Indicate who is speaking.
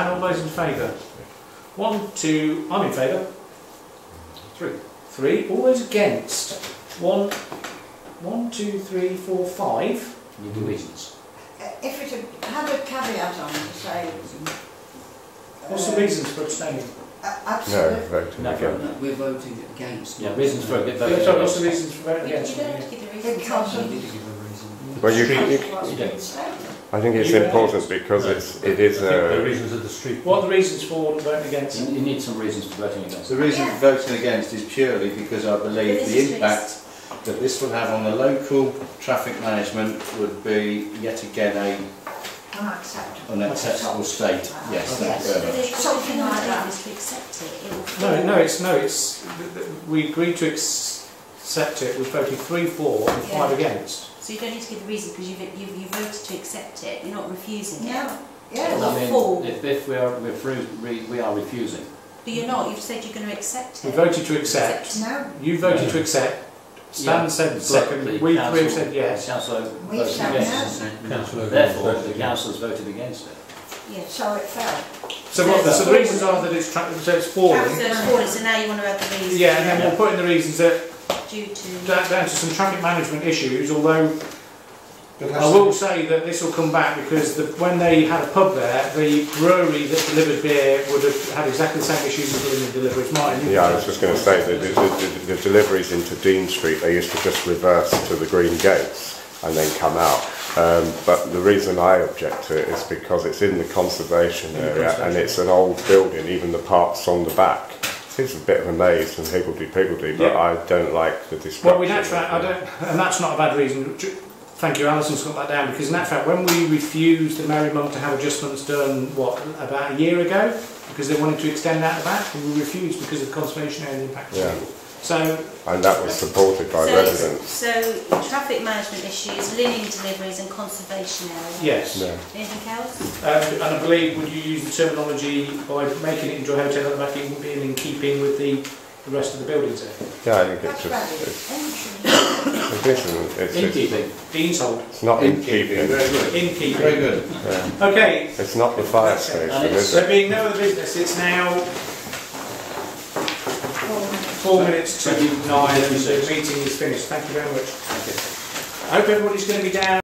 Speaker 1: those in favour? One, two, I'm in favour. Three. Three. All those against? One, one, two, three, four, five. Your divisions.
Speaker 2: Uh, If it had- had a caveat on it to say.
Speaker 1: What's
Speaker 2: uh,
Speaker 1: the reasons for abstaining?
Speaker 2: a-
Speaker 3: No,
Speaker 2: Absolute.
Speaker 3: voting
Speaker 1: No,
Speaker 3: again.
Speaker 4: No, We're voting against.
Speaker 1: Yeah, reasons for a bit
Speaker 4: voting
Speaker 1: Sorry, what's
Speaker 4: against.
Speaker 1: the reasons for voting against?
Speaker 2: Because
Speaker 4: You
Speaker 2: of.
Speaker 4: need to give a reason.
Speaker 3: Well, you,
Speaker 2: because
Speaker 3: you,
Speaker 2: of what's
Speaker 1: you
Speaker 2: been
Speaker 1: don't.
Speaker 2: stated.
Speaker 3: I think it's important because it's, it is uh,
Speaker 5: The
Speaker 3: a,
Speaker 5: reasons of the street.
Speaker 1: What are the reasons for voting against?
Speaker 6: You, you need some reasons for voting against.
Speaker 7: The reason for voting against is purely because I believe the impact that this will have on the local traffic management would be yet again a
Speaker 2: Unacceptable.
Speaker 7: unacceptable state. Yes, thank you very much.
Speaker 2: Something like that.
Speaker 8: If we accept it, it
Speaker 6: Mm.
Speaker 8: will.
Speaker 1: No, no, it's no, it's th- th- we agreed to ex- accept it. We voted three, four, and five
Speaker 8: Yeah.
Speaker 1: against.
Speaker 8: So you don't need to give the reason because you've, you've, you voted to accept it, you're not refusing it.
Speaker 2: Yeah,
Speaker 8: Well,
Speaker 2: yeah.
Speaker 8: I
Speaker 6: I
Speaker 8: mean,
Speaker 6: mean, if, if we are refru- re, we are refusing.
Speaker 8: But you're not, you've said you're going to accept
Speaker 1: We
Speaker 8: it.
Speaker 1: voted to accept.
Speaker 2: No,
Speaker 1: You voted to accept. Stan
Speaker 6: Yeah,
Speaker 1: said
Speaker 6: but
Speaker 1: second.
Speaker 6: the
Speaker 1: We
Speaker 6: council-
Speaker 1: three said yes.
Speaker 6: Councillor
Speaker 2: We
Speaker 6: voted
Speaker 2: said
Speaker 6: against.
Speaker 5: Councillor Owen
Speaker 6: Therefore,
Speaker 5: voted
Speaker 6: the
Speaker 5: against.
Speaker 6: councillors voted against it.
Speaker 8: Yeah. So
Speaker 2: so it fell.
Speaker 1: So, what, so the reasons are that it's tra- so it's falling.
Speaker 8: it's fallen, so now you want to add the reason.
Speaker 1: Yeah, and then we'll put in the reasons that
Speaker 8: Due to.
Speaker 1: that down to some traffic management issues. Although
Speaker 5: But
Speaker 1: I
Speaker 5: has
Speaker 1: will say that this will come back because the, when they had a pub there, the brewery that delivered beer would have had exactly the same issues as the one that delivered mine.
Speaker 3: yeah, I was just going to say that the, the, the deliveries into Dean Street, they used to just reverse to the green gates and then come out. Um, but the reason I object to it is because it's in the conservation area and it's an old building, even the parts on the back. It's a bit of a maze and higgledy-piggledy, but
Speaker 1: Yeah.
Speaker 3: I don't like the destruction.
Speaker 1: Well, we in actual fact, I don't, and that's not a bad reason. Ju- Thank you, Alison's got that down because in that fact, when we refused the Merry Monk to have adjustments done, what about a year ago, because they wanted to extend out the back, and we refused because of conservation area impact.
Speaker 3: Yeah.
Speaker 1: So
Speaker 3: And that was supported by
Speaker 8: so,
Speaker 3: residents.
Speaker 8: so traffic management issues, linen deliveries and conservation area.
Speaker 1: yes,
Speaker 3: Yeah.
Speaker 8: Anything else?
Speaker 1: um, and I believe would you use the terminology by making it into a hotel and making it in keeping with the, the rest of the buildings there?
Speaker 3: Yeah, I think it's
Speaker 2: That's
Speaker 3: just, it's
Speaker 2: valid.
Speaker 3: tradition. It's,
Speaker 6: In
Speaker 3: it's,
Speaker 6: keeping.
Speaker 1: Dean's hold,
Speaker 3: it's not in keeping.
Speaker 7: Very good.
Speaker 1: in
Speaker 7: Very
Speaker 1: keeping.
Speaker 7: good.
Speaker 1: Okay,
Speaker 3: It's not the fire station, is
Speaker 1: So
Speaker 3: it?
Speaker 1: being no other business, it's now four minutes to nine, and the meeting is finished. Thank you very much. I hope everybody's going to be down.